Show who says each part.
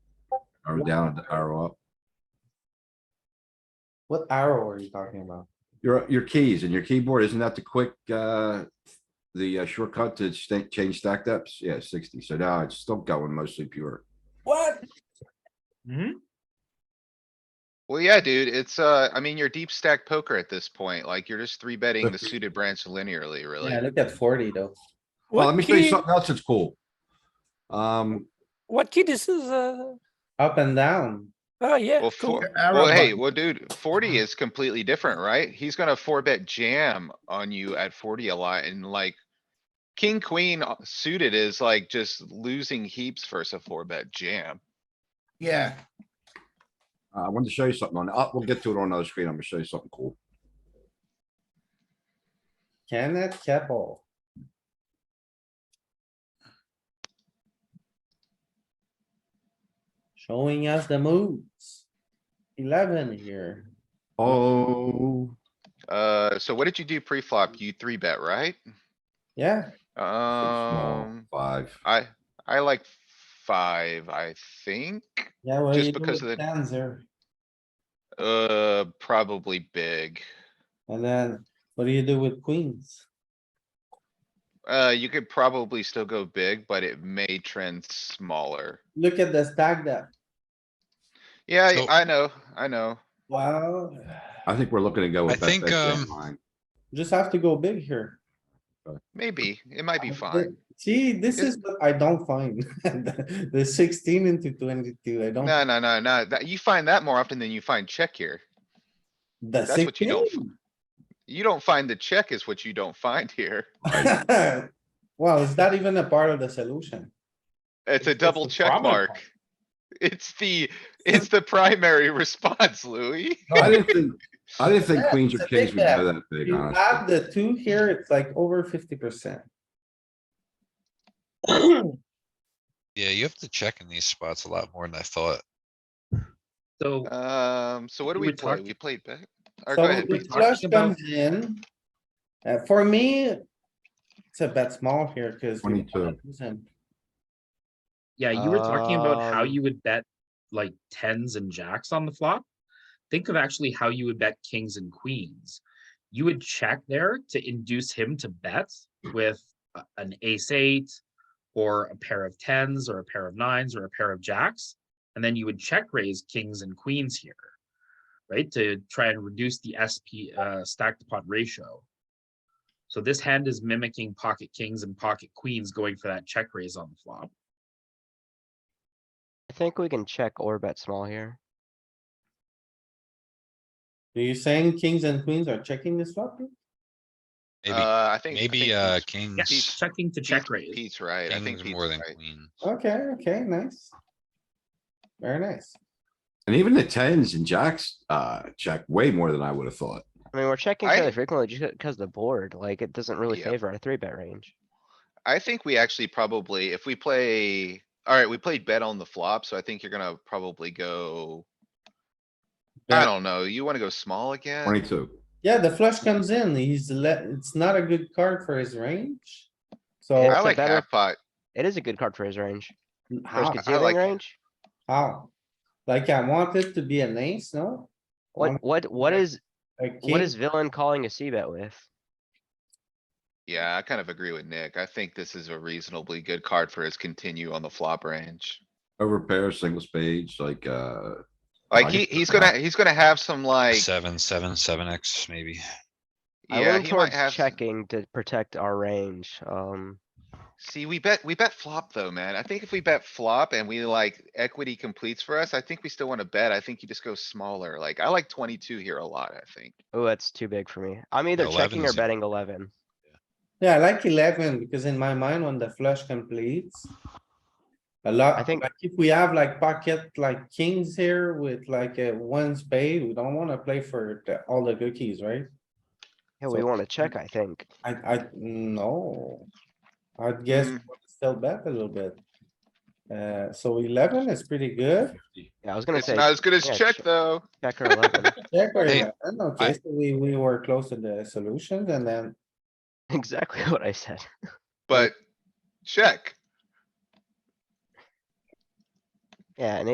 Speaker 1: Are we down an arrow up?
Speaker 2: What arrow are you talking about?
Speaker 1: Your, your keys and your keyboard, isn't that the quick, uh, the uh, shortcut to sta- change stack depths? Yeah, sixty. So now it's still going mostly pure.
Speaker 2: What?
Speaker 3: Well, yeah, dude, it's, uh, I mean, you're deep stack poker at this point, like, you're just three betting the
Speaker 1: Fifty.
Speaker 3: suited branch linearly, really.
Speaker 2: Yeah, look at forty though.
Speaker 1: Well,
Speaker 4: What
Speaker 1: let me show you
Speaker 4: key-
Speaker 1: something else that's cool. Um,
Speaker 4: What key this is, uh,
Speaker 2: Up and down.
Speaker 4: oh yeah,
Speaker 3: Well,
Speaker 4: cool. Uh-huh.
Speaker 3: four, well, hey, well, dude, forty is completely different, right? He's gonna four bet jam on you at forty a lot and like. King, queen uh, suited is like just losing heaps versus a four bet jam.
Speaker 5: Yeah,
Speaker 1: I wanted to show you something on, uh, we'll get to it on another screen. I'm gonna show you something cool.
Speaker 2: Kenneth Keppel. Showing us the moves. Eleven here.
Speaker 1: Oh,
Speaker 3: Uh, so what did you do pre-flop? You three bet, right?
Speaker 2: Yeah,
Speaker 1: so small,
Speaker 3: Um,
Speaker 1: five.
Speaker 3: I, I like five, I think.
Speaker 2: yeah. what do
Speaker 3: Just
Speaker 2: you do
Speaker 3: because
Speaker 2: with
Speaker 3: of the-
Speaker 2: Tens here.
Speaker 3: Uh, probably big.
Speaker 2: And then what do you do with queens?
Speaker 3: Uh, you could probably still go big, but it may trend smaller.
Speaker 2: Look at the stack depth.
Speaker 3: Yeah,
Speaker 6: So-
Speaker 3: I I know, I know.
Speaker 2: Wow,
Speaker 1: I think we're looking to go with
Speaker 6: I
Speaker 1: that.
Speaker 6: think,
Speaker 1: bet jam
Speaker 6: um,
Speaker 1: line.
Speaker 2: just have to go big here.
Speaker 3: Maybe, it might be
Speaker 2: Uh,
Speaker 3: fine.
Speaker 2: See, this
Speaker 3: It-
Speaker 2: is what I don't find. The sixteen into twenty-two, I don't.
Speaker 3: No, no, no, no, that, you find that more often than you find check here.
Speaker 2: The
Speaker 3: that's what you don't
Speaker 2: sixteen.
Speaker 3: You don't find the check is what you don't find here.
Speaker 2: Well, is that even a part of the solution?
Speaker 3: It's a
Speaker 4: It's
Speaker 3: double
Speaker 4: the
Speaker 3: check
Speaker 4: prominent
Speaker 3: mark.
Speaker 4: part.
Speaker 3: It's the, it's the primary response, Louis.
Speaker 1: No, I didn't think, I didn't think
Speaker 2: Yeah,
Speaker 1: queens
Speaker 2: it's
Speaker 1: or
Speaker 2: a big
Speaker 1: kings would go
Speaker 2: bet.
Speaker 1: that big,
Speaker 2: You
Speaker 1: honestly.
Speaker 2: add the two here, it's like over fifty percent.
Speaker 6: Yeah, you have to check in these spots a lot more than I thought.
Speaker 7: So
Speaker 3: Um, so what do
Speaker 7: We
Speaker 3: we
Speaker 7: were
Speaker 3: play?
Speaker 7: talk-
Speaker 3: We played back. Or go
Speaker 2: So
Speaker 3: ahead.
Speaker 7: we
Speaker 2: the
Speaker 3: Pete.
Speaker 7: talked
Speaker 2: flush
Speaker 7: about-
Speaker 2: comes in. Uh, for me, it's a bet small here because.
Speaker 1: 22.
Speaker 7: yeah, you were talking about how
Speaker 3: Um,
Speaker 7: you would bet like tens and jacks on the flop. Think of actually how you would bet kings and queens. You would check there to induce him to bet with a- an ace eight or a pair of tens or a pair of nines or a pair of jacks. And then you would check raise kings and queens here, right? To try and reduce the SP uh, stacked pot ratio. So this hand is mimicking pocket kings and pocket queens going for that check raise on the flop.
Speaker 8: I think we can check or bet small here.
Speaker 2: Are you saying kings and queens are checking this flop? here?
Speaker 6: Maybe,
Speaker 3: Uh, I think. I
Speaker 6: maybe,
Speaker 3: think
Speaker 6: uh,
Speaker 3: Pete's-
Speaker 7: Yeah,
Speaker 3: Pete's-
Speaker 6: kings,
Speaker 7: checking to check
Speaker 3: Pete's-
Speaker 7: raise.
Speaker 3: Pete's right. I think
Speaker 6: kings
Speaker 3: Pete's
Speaker 6: more than
Speaker 3: right.
Speaker 6: queen.
Speaker 2: Okay, okay, nice. Very nice.
Speaker 1: And even the tens and jacks, uh, check way more than I would have thought.
Speaker 8: I mean, we're checking
Speaker 3: I-
Speaker 8: fairly frequently just because the board, like, it doesn't really
Speaker 3: Yeah.
Speaker 8: favor our three bet range.
Speaker 3: I think we actually probably, if we play, alright, we played bet on the flop, so I think you're gonna probably go. I
Speaker 2: Bet.
Speaker 3: don't know, you wanna go small again?
Speaker 1: Twenty-two.
Speaker 2: Yeah, the flush comes in. He's let, it's not a good card for his range. So
Speaker 8: Yeah.
Speaker 3: I
Speaker 8: a
Speaker 3: like
Speaker 8: better-
Speaker 3: half pot.
Speaker 8: It is a good card for his range, for his
Speaker 2: how,
Speaker 3: Ah, I- I like
Speaker 8: concealing
Speaker 3: it.
Speaker 8: range.
Speaker 2: how? Like I want it to be an ace, no? One-
Speaker 8: What, what, what
Speaker 2: yeah.
Speaker 8: is,
Speaker 2: A
Speaker 8: what
Speaker 2: king?
Speaker 8: is villain calling a C bet with?
Speaker 3: Yeah, I kind of agree with Nick. I think this is a reasonably good card for his continue on the flop range.
Speaker 1: Over pairs, single spades, like, uh, I
Speaker 3: Like, he,
Speaker 1: get
Speaker 3: he's
Speaker 1: that.
Speaker 3: gonna, he's gonna have some like,
Speaker 6: Seven, seven, seven X maybe.
Speaker 8: I
Speaker 3: yeah,
Speaker 8: lean
Speaker 3: he might
Speaker 8: towards
Speaker 3: have. s-
Speaker 8: checking to protect our range, um,
Speaker 3: See, we bet, we bet flop though, man. I think if we bet flop and we like equity completes for us, I think we still wanna bet. I think you just go smaller. Like, I like twenty-two here a lot, I think.
Speaker 8: oh, that's too big for me. I'm either checking or
Speaker 6: 11's a-
Speaker 8: betting eleven.
Speaker 2: Yeah, I like eleven because in my mind, when the flush completes. A lot,
Speaker 8: I think-
Speaker 2: like if we have like pocket like kings here with like a one spade, we don't wanna play for the- all the cookies, right?
Speaker 8: Yeah, we
Speaker 2: So-
Speaker 8: wanna check, I think.
Speaker 2: I, I, no. I'd guess
Speaker 3: Mm.
Speaker 2: we'll still bet a little bit. Uh, so eleven is pretty good.
Speaker 8: Yeah, I was gonna
Speaker 3: It's
Speaker 8: say,
Speaker 3: not as good as
Speaker 8: yeah,
Speaker 3: check
Speaker 8: check.
Speaker 3: though.
Speaker 8: check or eleven,
Speaker 2: Check or
Speaker 6: Hey,
Speaker 2: 11, Okay,
Speaker 6: I-
Speaker 2: so we, we were close to the solution and then,
Speaker 8: exactly what I said.
Speaker 3: But check.
Speaker 8: Yeah, and